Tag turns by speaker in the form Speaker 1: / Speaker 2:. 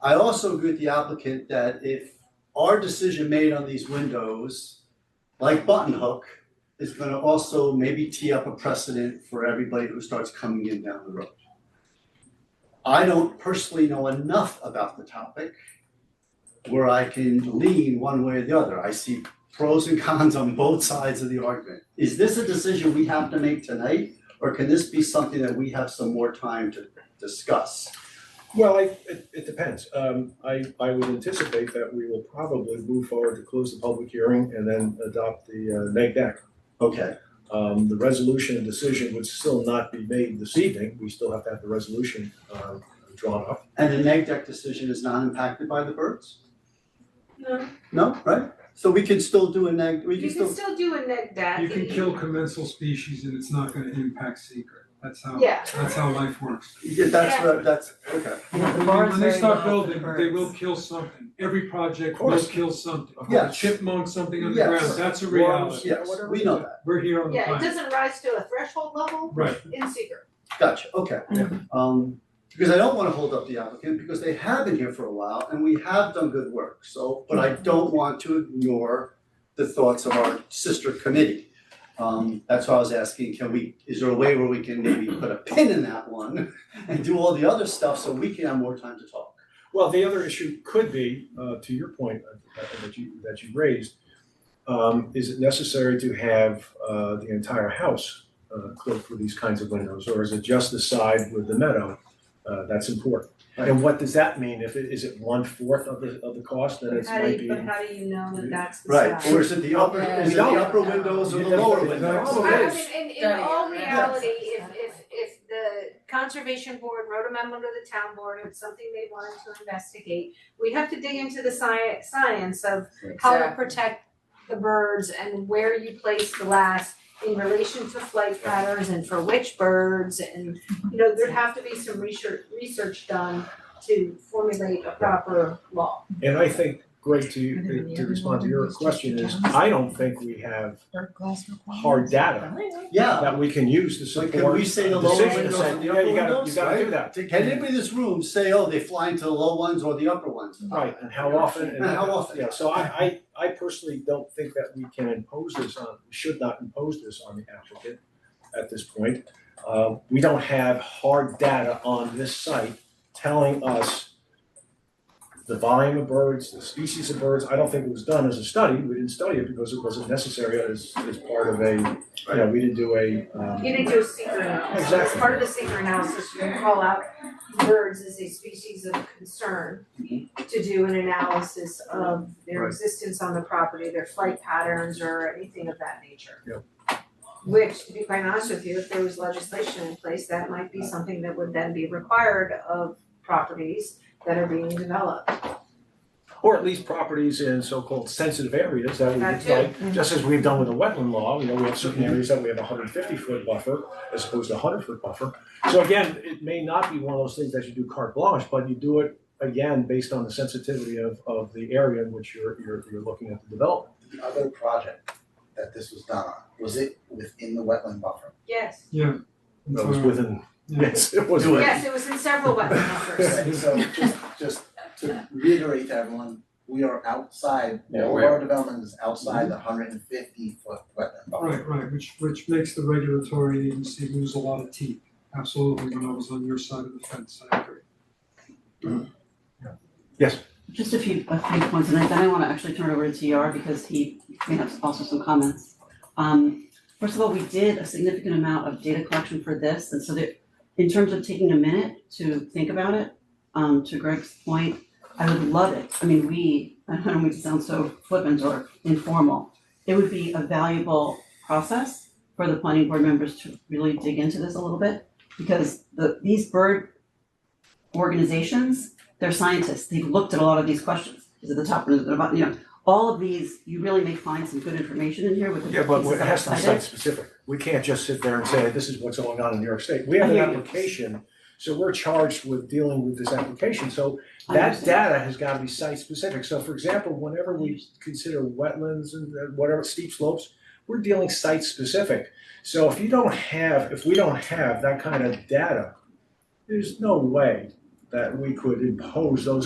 Speaker 1: I also agree with the applicant that if our decision made on these windows, like button hook, is gonna also maybe tee up a precedent for everybody who starts coming in down the road. I don't personally know enough about the topic where I can lean one way or the other. I see pros and cons on both sides of the argument. Is this a decision we have to make tonight? Or can this be something that we have some more time to discuss?
Speaker 2: Well, I, it, it depends. Um, I, I would anticipate that we will probably move forward to close the public hearing and then adopt the, uh, neg deck.
Speaker 1: Okay,
Speaker 2: Um, the resolution and decision would still not be made this evening. We still have to have the resolution, uh, drawn up.
Speaker 1: and the neg deck decision is not impacted by the birds?
Speaker 3: No,
Speaker 1: No, right? So we can still do a neg, we
Speaker 3: you
Speaker 1: can still,
Speaker 3: can still do a neg deck.
Speaker 4: You can
Speaker 3: and-
Speaker 4: kill commensal species and it's not gonna impact seeker, that's how,
Speaker 3: Yeah.
Speaker 4: that's how life works.
Speaker 1: yeah, that's, what- that's, okay.
Speaker 5: The
Speaker 4: When-
Speaker 5: bar's
Speaker 4: When they
Speaker 5: very low
Speaker 4: start
Speaker 5: for
Speaker 4: building,
Speaker 5: birds.
Speaker 4: they will kill something, every project will
Speaker 2: course.
Speaker 4: kill something,
Speaker 2: Of
Speaker 1: Yeah.
Speaker 2: course,
Speaker 4: chipmunk, something on the
Speaker 1: Yes.
Speaker 4: ground, that's a
Speaker 2: Worms,
Speaker 4: reality.
Speaker 1: Yes, we know that,
Speaker 4: We're here on the
Speaker 3: Yeah, it
Speaker 4: planet,
Speaker 3: doesn't rise to a threshold level
Speaker 4: right,
Speaker 3: in seeker.
Speaker 1: gotcha, okay. Um, because I don't wanna hold up the applicant, because they have been here for a while and we have done good work, so, but I don't want to ignore the thoughts of our sister committee. Um, that's why I was asking, can we, is there a way where we can maybe put a pin in that one and do all the other stuff so we can have more time to talk?
Speaker 2: Well, the other issue could be, uh, to your point uh, uh, that you, that you raised, um, is it necessary to have, uh, the entire house, uh, closed for these kinds of windows? Or is it just the side with the meadow, uh, that's important? And what does that mean? If it, is it one-fourth of the, of the cost, then it
Speaker 3: How
Speaker 2: might
Speaker 3: do
Speaker 2: be.
Speaker 3: you, but how do you know that that's the
Speaker 1: Right,
Speaker 3: size?
Speaker 1: or is it the upper, is it the upper windows or the lower
Speaker 2: Well,
Speaker 3: I I
Speaker 1: windows?
Speaker 2: it's-
Speaker 3: mean, in in
Speaker 5: Dirty.
Speaker 3: all
Speaker 5: Yeah.
Speaker 3: reality, if if if the conservation board wrote a memo to the town board, it's something they wanted to investigate. We'd have to dig into the sci- science of how to protect the birds and where you place the glass in relation to flight patterns and for which birds and, you know, there'd have to be some research, research done to formulate a proper law.
Speaker 2: And I think, Greg,
Speaker 5: Are there
Speaker 2: to,
Speaker 5: any
Speaker 2: to
Speaker 5: other
Speaker 2: respond to your
Speaker 5: ones?
Speaker 2: question is,
Speaker 5: Just-
Speaker 2: I don't think we have hard data
Speaker 1: Yeah,
Speaker 2: that we can use to
Speaker 1: So
Speaker 2: support.
Speaker 1: can we say the
Speaker 2: a
Speaker 1: lower
Speaker 2: decision to
Speaker 1: windows
Speaker 2: say,
Speaker 1: and the
Speaker 2: yeah,
Speaker 1: upper
Speaker 2: you gotta-
Speaker 1: windows,
Speaker 2: You gotta
Speaker 1: right?
Speaker 2: do that.
Speaker 1: can anybody in this room say, oh, they fly into the low ones or the upper ones?
Speaker 2: Right, and how often, and.
Speaker 1: And how often?
Speaker 2: Yeah, so I, I, I personally don't think that we can impose this on, should not impose this on the applicant at this point. Uh, we don't have hard data on this site telling us the volume of birds, the species of birds. I don't think it was done as a study. We didn't study it because it wasn't necessary as, as part of a, you know, we didn't do a, um.
Speaker 3: You didn't do a secret analysis, as
Speaker 2: Exactly.
Speaker 3: part of the secret analysis, you can call out birds as a species of concern to do an analysis of their
Speaker 2: Mm-hmm. Right.
Speaker 3: existence on the property, their flight patterns or anything of that nature.
Speaker 2: Yeah.
Speaker 3: Which, to be quite honest with you, if there was legislation in place, that might be something that would then be required of properties that are being developed.
Speaker 2: Or at least properties in so-called sensitive areas that we
Speaker 3: That
Speaker 2: would like, just as we've done with the wetland law, you know, we have certain areas that we have a hundred fifty foot buffer as opposed to a hundred foot buffer. So again, it may not be one of those things that you do carte blanche, but you do it again based on the sensitivity of of the area in which you're you're you're looking at the development.
Speaker 6: The other project that this was done on, was it within the wetland buffer?
Speaker 3: Yes.
Speaker 4: yeah.
Speaker 2: That
Speaker 4: Mm-hmm.
Speaker 2: was within,
Speaker 4: Yeah.
Speaker 2: yes, it was.
Speaker 1: Do it.
Speaker 3: Yes, it was in several wetland buffers.
Speaker 6: Right, So just just to reiterate to everyone, we are outside,
Speaker 2: Yeah,
Speaker 6: all
Speaker 2: we
Speaker 6: of our development is outside the hundred and fifty foot wetland buffer.
Speaker 4: Right, right, which which makes the regulatory agency lose a lot of teeth, absolutely, when I was on your side of the fence, I agree.
Speaker 7: Just a few, a few points, and then I wanna actually turn it over to TR because he may have also some comments. Um, first of all, we did a significant amount of data collection for this, and so that, in terms of taking a minute to think about it, um, to Greg's point, I would love it, I mean, we, I don't mean to sound so flippant or informal, it would be a valuable process for the planning board members to really dig into this a little bit, because the, these bird organizations they're scientists, they've looked at a lot of these questions, is it the top, is it the bottom, you know, all of these, you really may find some good information in here with the
Speaker 2: Yeah,
Speaker 7: pieces
Speaker 2: but it
Speaker 7: that
Speaker 2: has to
Speaker 7: I
Speaker 2: be
Speaker 7: cited.
Speaker 2: site specific. We can't just sit there and say, this is what's going on in New York State. We have
Speaker 7: I
Speaker 2: an
Speaker 7: hear you.
Speaker 2: application, so we're charged with dealing with this application. So
Speaker 7: I
Speaker 2: that
Speaker 7: understand.
Speaker 2: data has gotta be site specific. So for example, whenever we consider wetlands and uh, whatever steep slopes, we're dealing site specific. So if you don't have, if we don't have that kind of data, there's no way that we could impose those